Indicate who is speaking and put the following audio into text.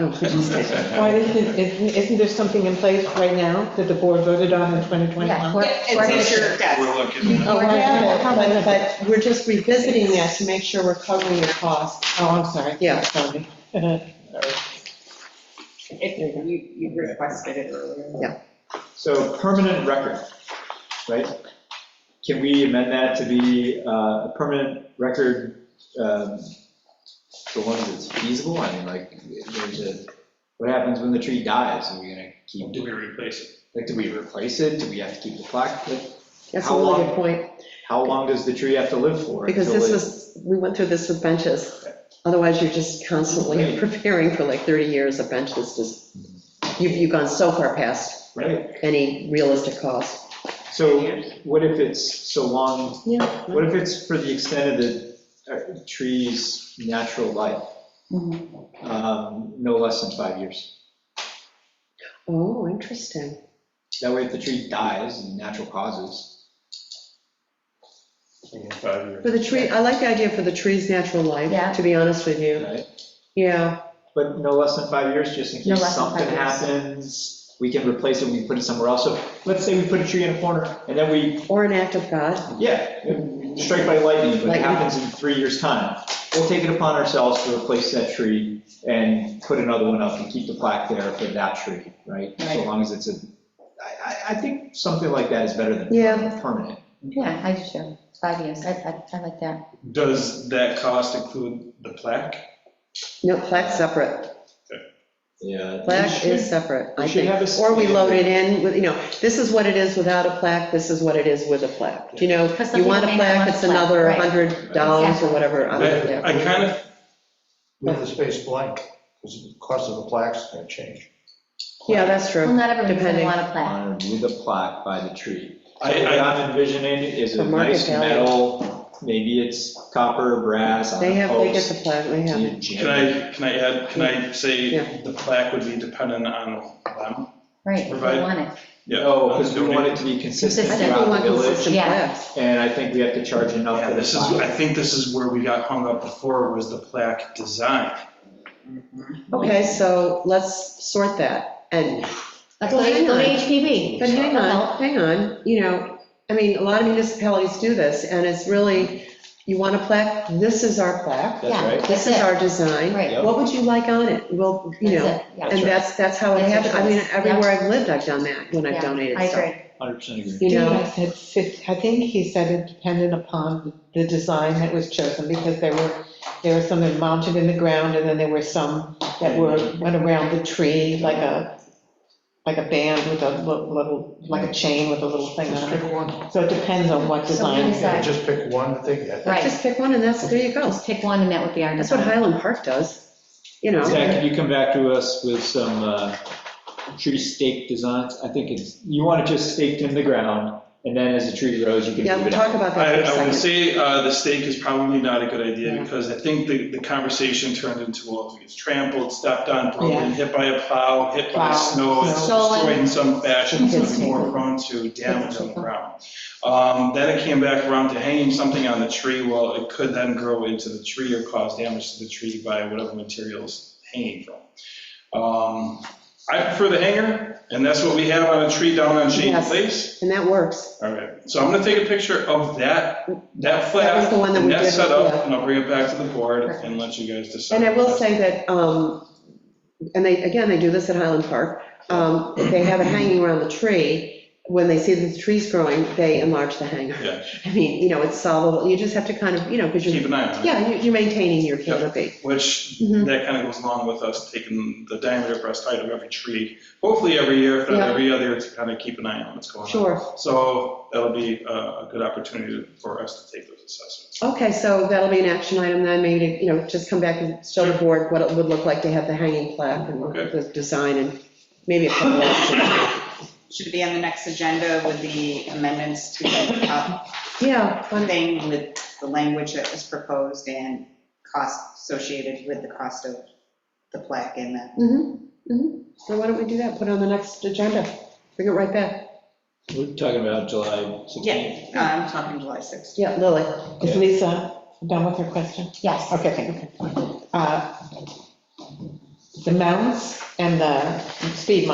Speaker 1: Oh,
Speaker 2: Why isn't, isn't isn't there something in place right now that the board voted on in 2021?
Speaker 1: Yeah,
Speaker 2: Oh,
Speaker 1: we're- we're-
Speaker 3: It's in your
Speaker 4: We're
Speaker 3: desk.
Speaker 4: looking,
Speaker 2: I have it,
Speaker 1: How about-
Speaker 2: but- But we're just revisiting that to make sure we're covering your costs. Oh, I'm sorry.
Speaker 1: Yeah.
Speaker 2: Sorry.
Speaker 3: If you, you requested it earlier.
Speaker 5: So permanent record, right? Can we amend that to be uh, a permanent record, um, the one that's feasible? I mean, like, there's a, what happens when the tree dies? Are we gonna keep,
Speaker 4: do we replace it?
Speaker 5: like, do we replace it? Do we have to keep the plaque? Like,
Speaker 1: That's a
Speaker 5: How
Speaker 1: really
Speaker 5: long?
Speaker 1: good point,
Speaker 5: How long does the tree have to live for?
Speaker 1: because
Speaker 5: until
Speaker 1: this
Speaker 5: it-
Speaker 1: was, we went through this with benches. Otherwise, you're just constantly
Speaker 5: Right.
Speaker 1: preparing for like 30 years of benches, just, you've, you've gone so far past
Speaker 5: Right,
Speaker 1: any realistic cost.
Speaker 5: so what if it's so long
Speaker 1: Yeah.
Speaker 5: What if it's for the extent of the uh, tree's natural life?
Speaker 3: Mm-hmm.
Speaker 5: Um, No less than five years.
Speaker 1: Oh, interesting.
Speaker 5: That way, if the tree dies in natural causes,
Speaker 4: Five years.
Speaker 1: For the tree, I like the idea for the tree's natural
Speaker 3: Yeah.
Speaker 1: life, to be honest with you.
Speaker 5: right?
Speaker 1: Yeah,
Speaker 5: But no less than five years, just in
Speaker 3: No
Speaker 5: case
Speaker 3: less than five
Speaker 5: something
Speaker 3: years.
Speaker 5: happens, we can replace it, we can put it somewhere else. So let's say we put a tree in a corner, and then we,
Speaker 1: or an act of God.
Speaker 5: yeah, strike by lightning, but it
Speaker 1: Lightning.
Speaker 5: happens in three years' time. We'll take it upon ourselves to replace that tree and put another one up and keep the plaque there for that tree, right? So
Speaker 3: Right.
Speaker 5: long as it's a, I, I, I think something like that is better than
Speaker 1: Yeah.
Speaker 5: permanent.
Speaker 6: Yeah, I do too. Five years, I, I, I like that.
Speaker 4: Does that cost include the plaque?
Speaker 1: No, plaque's separate.
Speaker 5: Yeah.
Speaker 1: Plaque is separate,
Speaker 5: we
Speaker 1: I
Speaker 5: should
Speaker 1: think.
Speaker 5: have a
Speaker 1: Or we
Speaker 5: standard.
Speaker 1: load it in with, you know, this is what it is without a plaque, this is what it is with a plaque. You know,
Speaker 6: Because some
Speaker 1: you want a
Speaker 6: people may not
Speaker 1: plaque,
Speaker 6: want a
Speaker 1: it's
Speaker 6: plaque,
Speaker 1: another
Speaker 6: right.
Speaker 1: hundred dollars or whatever. on it,
Speaker 4: I
Speaker 1: yeah.
Speaker 4: I kind of,
Speaker 7: leave the space blank, because the cost of the plaque's gonna change.
Speaker 1: Yeah, that's
Speaker 6: Well,
Speaker 1: true.
Speaker 6: not everyone's gonna
Speaker 1: Depending.
Speaker 6: want a plaque.
Speaker 5: Honored With a plaque by the tree. So
Speaker 4: I,
Speaker 5: What
Speaker 4: I,
Speaker 5: I'm envisioning is
Speaker 1: For
Speaker 5: a
Speaker 1: market
Speaker 5: nice
Speaker 1: value.
Speaker 5: metal, maybe it's copper, brass, on
Speaker 1: They
Speaker 5: a
Speaker 1: have, they get
Speaker 5: post.
Speaker 1: the plaque, they have it.
Speaker 5: You jam
Speaker 4: can
Speaker 5: it.
Speaker 4: I, can I add, can I say
Speaker 1: Yeah.
Speaker 4: the plaque would be dependent on them?
Speaker 6: Right, if you
Speaker 4: Provide-
Speaker 6: want it.
Speaker 4: Yeah.
Speaker 5: No, because Oh, we
Speaker 4: Don't
Speaker 5: want it to be consistent
Speaker 1: I think
Speaker 6: Consistent.
Speaker 1: we
Speaker 5: throughout
Speaker 1: want
Speaker 5: the village,
Speaker 1: consistent
Speaker 6: Yeah.
Speaker 1: plaques.
Speaker 5: and I think we have to charge enough
Speaker 4: Yeah,
Speaker 5: for the
Speaker 4: this is,
Speaker 5: plaque.
Speaker 4: I think this is where we got hung up before, was the plaque design.
Speaker 1: Okay, so let's sort that. And,
Speaker 6: Let's
Speaker 1: Well,
Speaker 6: go to
Speaker 1: hang
Speaker 6: go to
Speaker 1: on.
Speaker 6: HPV.
Speaker 1: but hang
Speaker 6: Well,
Speaker 1: on, hang on, you know, I mean, a lot of municipalities do this, and it's really, you want a plaque, this is our plaque,
Speaker 5: That's
Speaker 6: Yeah.
Speaker 5: right.
Speaker 1: this is our design.
Speaker 6: Right,
Speaker 5: Yep.
Speaker 1: What would you like on it? Well, you
Speaker 6: that's
Speaker 1: know,
Speaker 6: it, yeah.
Speaker 1: And that's, that's how it
Speaker 6: That's
Speaker 1: happened. I mean,
Speaker 6: interesting.
Speaker 1: everywhere I've lived, I've done that when
Speaker 6: Yeah,
Speaker 1: I've donated
Speaker 6: I
Speaker 1: stuff.
Speaker 6: agree.
Speaker 5: 100% agree.
Speaker 1: You
Speaker 2: I
Speaker 1: know,
Speaker 2: said, fif- I think he said it depended upon the design that was chosen, because there were, there were some that mounted in the ground, and then there were some that were, went around the tree, like a, like a band with a li- little, like a chain with a little thing
Speaker 7: Just
Speaker 2: on
Speaker 7: pick
Speaker 2: it.
Speaker 7: one,
Speaker 2: So it depends on what
Speaker 6: So what
Speaker 2: design.
Speaker 6: is
Speaker 7: Yeah,
Speaker 6: that?
Speaker 7: just pick one thing, yeah.
Speaker 6: Right,
Speaker 1: just pick one and that's, there you go.
Speaker 6: just pick one and that would be our
Speaker 1: That's what
Speaker 6: design.
Speaker 1: Highland Park does, you know.
Speaker 5: Zach, can you come back to us with some uh, tree stake designs? I think it's, you want it just staked in the ground, and then as the tree grows, you can
Speaker 1: Yeah,
Speaker 5: move
Speaker 1: we'll
Speaker 5: it
Speaker 1: talk
Speaker 5: out.
Speaker 1: about
Speaker 4: I,
Speaker 1: that for
Speaker 4: I
Speaker 1: a second.
Speaker 4: would say uh, the stake is probably not a good
Speaker 1: Yeah.
Speaker 4: idea, because I think the, the conversation turned into, well, if it gets trampled, stepped on, broken, hit by a plow, hit by
Speaker 2: Plow,
Speaker 4: snow, it's
Speaker 6: snow.
Speaker 4: destroyed in some fashion, so it's
Speaker 1: Kids
Speaker 4: more
Speaker 1: take
Speaker 4: prone to damage on the ground. Um, Then it came back around to hanging something on the tree, well, it could then grow into the tree or cause damage to the tree by whatever materials hanging from. Um, I prefer the hanger, and that's what we have on a tree down on Shady
Speaker 1: Yes.
Speaker 4: Place.
Speaker 1: And that works.
Speaker 4: All right, so I'm gonna take a picture of that, that
Speaker 1: That was
Speaker 4: flat,
Speaker 1: the one that we
Speaker 4: and that
Speaker 1: did,
Speaker 4: setup,
Speaker 1: yeah.
Speaker 4: and I'll bring it back to the board and let you guys decide.
Speaker 1: And I will say that, um, and they, again, they do this at Highland Park. Um, if they have it hanging around the tree, when they see that the tree's growing, they enlarge the hanger.
Speaker 4: Yeah.
Speaker 1: I mean, you know, it's solvable. You just have to kind of, you know, because
Speaker 4: Keep
Speaker 1: you're,
Speaker 4: an eye on it,
Speaker 1: yeah, you- you're maintaining your canopy.
Speaker 4: which,
Speaker 1: Mhm.
Speaker 4: that kind of goes along with us taking the diameter breast height of every tree, hopefully every year, if not
Speaker 1: Yeah.
Speaker 4: every other, to kind of keep an eye on what's going on.
Speaker 1: Sure.
Speaker 4: So that'll be a, a good opportunity for us to take those assessments.
Speaker 1: Okay, so that'll be an action item then, maybe, to, you know, just come back and show the board what it would look like to have the hanging plaque and
Speaker 4: Okay.
Speaker 1: the design and maybe a couple of,
Speaker 3: Should be on the next agenda with the amendments to the top
Speaker 1: yeah, fun-
Speaker 3: thing with the language that was proposed and cost associated with the cost of the plaque and the
Speaker 1: mhm, mhm. So why don't we do that, put it on the next agenda, bring it right back.
Speaker 5: We're talking about July 16th.
Speaker 3: Yeah, I'm talking July 6th.
Speaker 1: Yeah, Lily,
Speaker 2: Is Lisa done with her question?
Speaker 6: Yes.
Speaker 2: Okay, thank you. Uh, the mounts and the speed